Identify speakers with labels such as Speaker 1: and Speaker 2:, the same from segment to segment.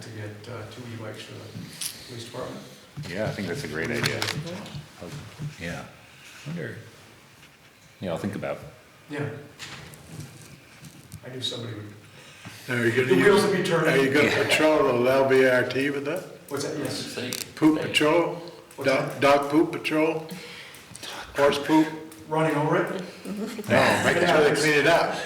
Speaker 1: to get uh, two e-bikes for the police department.
Speaker 2: Yeah, I think that's a great idea. Yeah,
Speaker 3: Wonder,
Speaker 2: yeah, I'll think about.
Speaker 1: Yeah. I knew somebody would,
Speaker 4: Now, are you
Speaker 1: the
Speaker 4: gonna
Speaker 1: wheels
Speaker 4: use,
Speaker 1: would be
Speaker 4: are
Speaker 1: turning.
Speaker 4: you gonna patrol the LVRT with that?
Speaker 1: What's that, yes?
Speaker 5: Think-
Speaker 4: Poop
Speaker 5: think.
Speaker 4: patrol?
Speaker 1: What's
Speaker 4: Dog,
Speaker 1: that?
Speaker 4: dog poop patrol? Horse poop?
Speaker 1: Running over it?
Speaker 4: No, making sure they clean it up.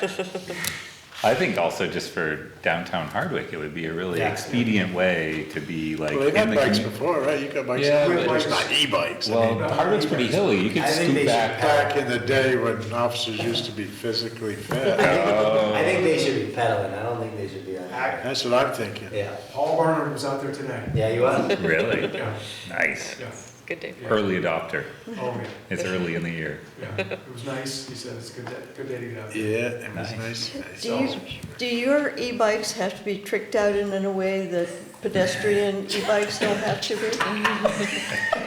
Speaker 2: I think also just for downtown Hardwick, it would be a really
Speaker 1: Yeah.
Speaker 2: expedient way to be like.
Speaker 4: Well, they've
Speaker 2: in
Speaker 4: had
Speaker 2: the
Speaker 4: bikes
Speaker 2: commu-
Speaker 4: before, right? You got bikes.
Speaker 2: Yeah,
Speaker 1: We have
Speaker 2: but-
Speaker 1: bikes.
Speaker 4: Not e-bikes.
Speaker 2: Well, Hardwick's pretty hilly, you could
Speaker 3: I think they
Speaker 2: scoot
Speaker 3: should
Speaker 2: back.
Speaker 3: pack-
Speaker 4: Back in the day when officers used to be physically fit.
Speaker 3: I think they should be pedaling, I don't think they should be on.
Speaker 1: Act-
Speaker 4: That's what I'm thinking.
Speaker 3: Yeah,
Speaker 1: Paul Barnard was out there today.
Speaker 3: yeah, you are.
Speaker 2: Really?
Speaker 1: Yeah,
Speaker 2: Nice.
Speaker 1: yeah.
Speaker 6: Good day.
Speaker 1: yeah.
Speaker 2: Early adopter.
Speaker 1: Oh, yeah,
Speaker 2: It's early in the year.
Speaker 1: yeah. It was nice. He said it's a good, day- good day to get out. there.
Speaker 4: Yeah, it was nice. Oh.
Speaker 7: Do you, do your e-bikes have to be tricked out in a way that pedestrian e-bikes don't have to be?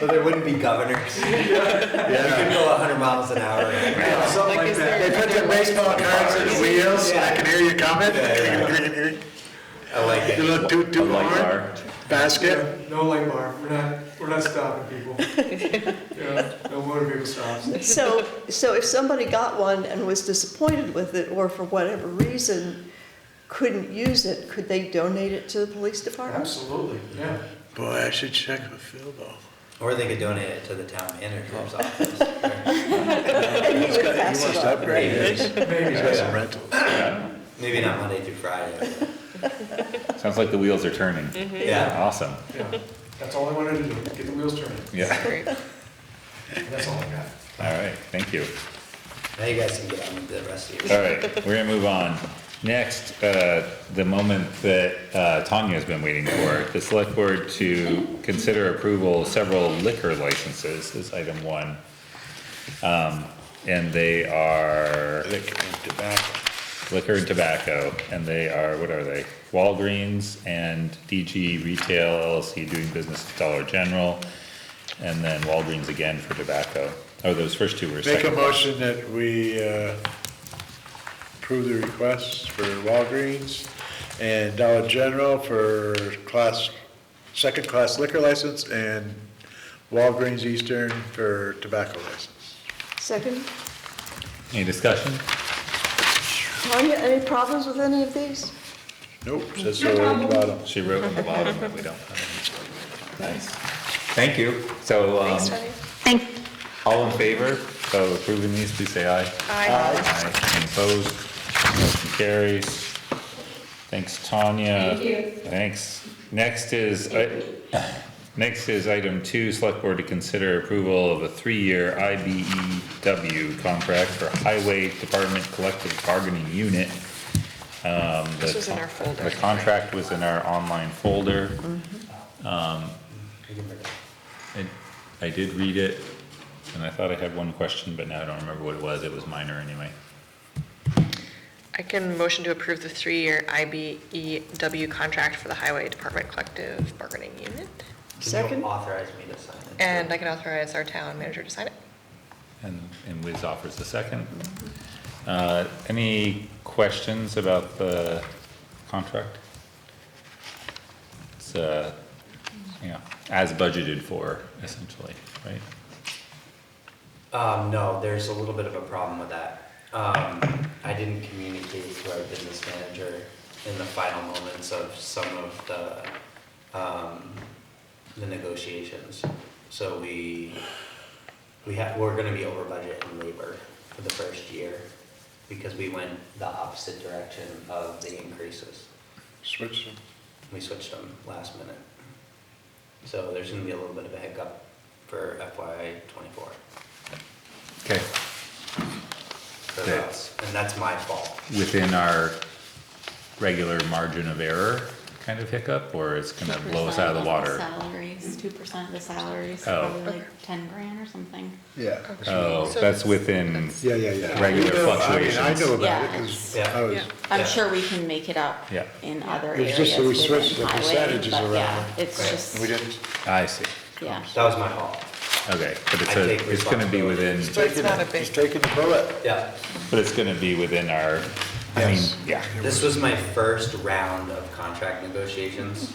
Speaker 3: But there wouldn't be governors. You could
Speaker 4: Yeah.
Speaker 3: go hundred miles an hour.
Speaker 1: Yeah, something
Speaker 6: Like,
Speaker 1: like
Speaker 6: is
Speaker 1: that.
Speaker 4: They put the baseball cards in the wheels, so I can hear you coming.
Speaker 3: I like
Speaker 4: Your
Speaker 3: it.
Speaker 4: little toot
Speaker 2: A
Speaker 4: toot
Speaker 2: light
Speaker 4: horn,
Speaker 2: bar.
Speaker 4: basket.
Speaker 1: Yeah, No light bar. We're not, we're not stopping people. Yeah, no motor vehicle stops.
Speaker 7: So, so if somebody got one and was disappointed with it, or for whatever reason couldn't use it, could they donate it to the police department?
Speaker 1: Absolutely, yeah.
Speaker 4: Boy, I should check with Phil though.
Speaker 3: Or they could donate it to the town manager's office.
Speaker 7: And he
Speaker 4: He's
Speaker 7: would
Speaker 4: got-
Speaker 7: pass
Speaker 4: He
Speaker 7: it
Speaker 4: wants to
Speaker 7: on.
Speaker 4: upgrade his.
Speaker 1: Maybe,
Speaker 4: He's
Speaker 1: yeah.
Speaker 4: got some rentals.
Speaker 3: Maybe not Monday through Friday.
Speaker 2: Sounds like the wheels are turning.
Speaker 3: Yeah.
Speaker 2: Awesome,
Speaker 1: yeah. That's all I wanted to do, get the wheels turning.
Speaker 2: yeah,
Speaker 6: Great.
Speaker 1: That's all I got.
Speaker 2: all right, thank you.
Speaker 3: Now you guys can get on with the rest of your.
Speaker 2: All right, we're gonna move on. Next, uh, the moment that uh, Tanya's been waiting for, the select board to consider approval of several liquor licenses is item one. Um, and they are
Speaker 4: Liquor and tobacco.
Speaker 2: liquor and tobacco, and they are, what are they? Walgreens and DG Retail LLC doing business at Dollar General, and then Walgreens again for tobacco. Oh, those first two were
Speaker 4: Make a
Speaker 2: second.
Speaker 4: motion that we uh, approve the requests for Walgreens and Dollar General for class, second-class liquor license and Walgreens Eastern for tobacco license.
Speaker 7: Second,
Speaker 2: Any discussion?
Speaker 7: Tanya, any problems with any of these?
Speaker 4: Nope, says so on the bottom.
Speaker 2: She wrote on the bottom, but we don't have any. Nice. Thank you. So, um,
Speaker 7: Thanks, Tanya.
Speaker 2: all in favor of approving these, please say aye.
Speaker 6: Aye.
Speaker 2: Aye. Any Opposed? Motion carries. Thanks, Tanya. Thank you. Thanks. Next is, uh, i- next is item two, select board to consider approval of a three-year IBEW contract for Highway Department Collective Bargaining Unit. Um, the
Speaker 6: This was in
Speaker 2: con-
Speaker 6: our folder.
Speaker 2: The contract was in our online folder.
Speaker 6: Mm-hmm.
Speaker 2: I, I did read it, and I thought I had one question, but now I don't remember what it was, it was minor anyway.
Speaker 6: I can motion to approve the three-year IBEW contract for the Highway Department Collective Bargaining Unit.
Speaker 3: Can
Speaker 7: Second.
Speaker 3: you authorize me to sign it?
Speaker 6: And I can authorize our town manager to sign it.
Speaker 2: And, and Wiz offers a second. Uh, any questions about the contract? It's, uh, you know, as budgeted for essentially, right?
Speaker 3: Um, no, there's a little bit of a problem with that. Um, I didn't communicate to our business manager in the final moments of some of the, um, the negotiations. So we, we have, we're gonna be over budget in labor for the first year because we went the opposite direction of the increases.
Speaker 4: Switch them.
Speaker 3: We switched them last minute. So there's gonna be a little bit of a hiccup for FY twenty-four.
Speaker 2: Okay.
Speaker 3: for us, and that's my fault.
Speaker 2: Within our regular margin of error kind of hiccup, or it's gonna blow us out of the
Speaker 8: 2%
Speaker 2: water?
Speaker 8: Salaries, two percent of the salaries,
Speaker 2: Oh.
Speaker 8: probably like ten grand or something.
Speaker 4: Yeah.
Speaker 2: Oh,
Speaker 6: So
Speaker 2: that's within,
Speaker 4: Um, Yeah, yeah, yeah.
Speaker 2: Regular
Speaker 4: You know, I mean, I
Speaker 2: fluctuations.
Speaker 4: know about it
Speaker 8: Yeah,
Speaker 4: 'cause
Speaker 3: it's-
Speaker 4: I was,
Speaker 6: Yeah.
Speaker 3: Yeah.
Speaker 8: I'm sure we can make it up
Speaker 2: Yeah.
Speaker 8: in other
Speaker 4: It's
Speaker 8: areas.
Speaker 4: just that we
Speaker 8: within
Speaker 4: switched the
Speaker 8: highway,
Speaker 4: percentages
Speaker 8: but
Speaker 4: around.
Speaker 8: yeah, It's
Speaker 3: Right.
Speaker 4: we
Speaker 8: just,
Speaker 4: didn't,
Speaker 2: I see,
Speaker 8: yeah.
Speaker 3: That was my fault.
Speaker 2: okay, but it's
Speaker 3: I take
Speaker 2: a, it's gonna be
Speaker 3: responsibility.
Speaker 2: within,
Speaker 6: So it's not a big,
Speaker 4: just taking the bullet.
Speaker 3: Yeah,
Speaker 2: but it's gonna be within our, I mean,
Speaker 4: Yes.
Speaker 2: yeah.
Speaker 3: this was my first round of contract negotiations